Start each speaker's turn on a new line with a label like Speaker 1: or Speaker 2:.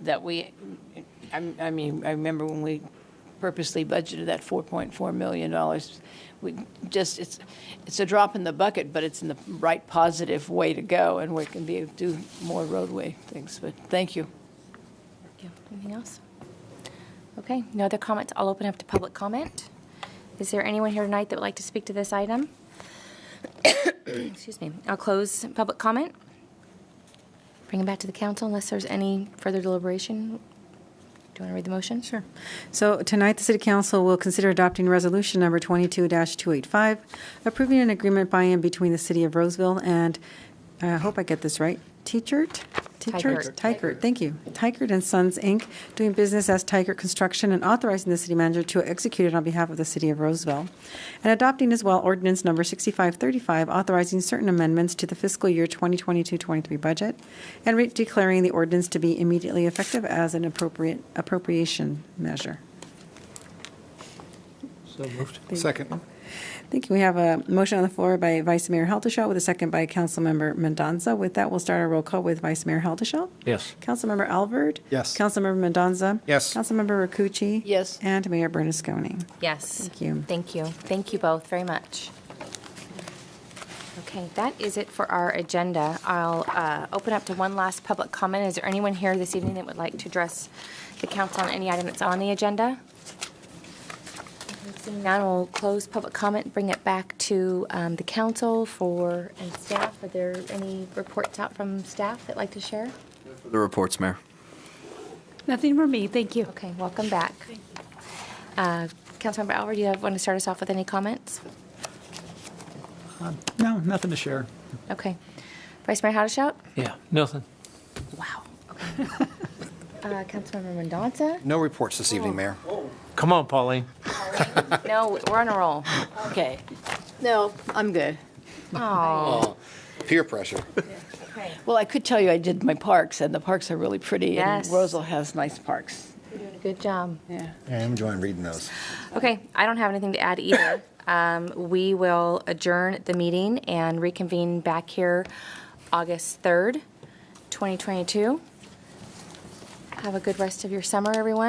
Speaker 1: that we, I, I mean, I remember when we purposely budgeted that $4.4 million. We just, it's, it's a drop in the bucket, but it's in the right positive way to go, and we can be, do more roadway things, but thank you.
Speaker 2: Yeah, Anything else? Okay, no other comments. I'll open up to public comment. Is there anyone here tonight that would like to speak to this item? Excuse me. I'll close public comment. Bring it back to the council unless there's any further deliberation. Do you want to read the motion?
Speaker 3: Sure. So tonight, the City Council will consider adopting Resolution Number 22-285, approving an agreement by and between the City of Roseville and, uh, I hope I get this right, Teachert?
Speaker 2: Teichert.
Speaker 3: Teachert? Teichert, thank you. Teichert and Sons, Inc., doing business as Teichert Construction and authorizing the city manager to execute it on behalf of the City of Roseville. And adopting as well ordinance number 6535, authorizing certain amendments to the fiscal year 2022-23 budget, and re- declaring the ordinance to be immediately effective as an appropriate appropriation measure.
Speaker 4: So moved.
Speaker 5: Second.
Speaker 3: Thank you. We have a motion on the floor by Vice Mayor Helderschell with a second by Councilmember Mendoza. With that, we'll start our roll call with Vice Mayor Helderschell.
Speaker 4: Yes.
Speaker 3: Councilmember Alvord.
Speaker 5: Yes.
Speaker 3: Councilmember Mendoza.
Speaker 5: Yes.
Speaker 3: Councilmember Rakucci.
Speaker 1: Yes.
Speaker 3: And Mayor Bernasconi.
Speaker 2: Yes.
Speaker 3: Thank you.
Speaker 2: Thank you. Thank you both very much. Okay, that is it for our agenda. I'll uh, open up to one last public comment. Is there anyone here this evening that would like to address the council on any item that's on the agenda? Seeing none, we'll close public comment, bring it back to um, the council for, and staff. Are there any reports out from staff that'd like to share?
Speaker 6: The reports, Mayor.
Speaker 7: Nothing for me, thank you.
Speaker 2: Okay, welcome back. Uh, Councilmember Alver, do you have, want to start us off with any comments?
Speaker 4: Uh, No, nothing to share.
Speaker 2: Okay. Vice Mayor Haddashelt?
Speaker 4: Yeah, nothing.
Speaker 2: Wow. Uh, Councilmember Mendoza?
Speaker 5: No reports this
Speaker 3: Oh.
Speaker 5: evening, Mayor.
Speaker 4: Come on, Pauline.
Speaker 2: No, we're on a roll.
Speaker 1: Okay. No, I'm good.
Speaker 2: Oh,
Speaker 5: Peer pressure.
Speaker 1: Well, I could tell you I did my parks, and the parks are really pretty, and
Speaker 2: Yes.
Speaker 1: Rosal has nice parks.
Speaker 2: good job.
Speaker 1: Yeah.
Speaker 5: I'm enjoying reading those.
Speaker 2: Okay, I don't have anything to add either. Um, We will adjourn the meeting and reconvene back here August 3rd, 2022. Have a good rest of your summer, everyone.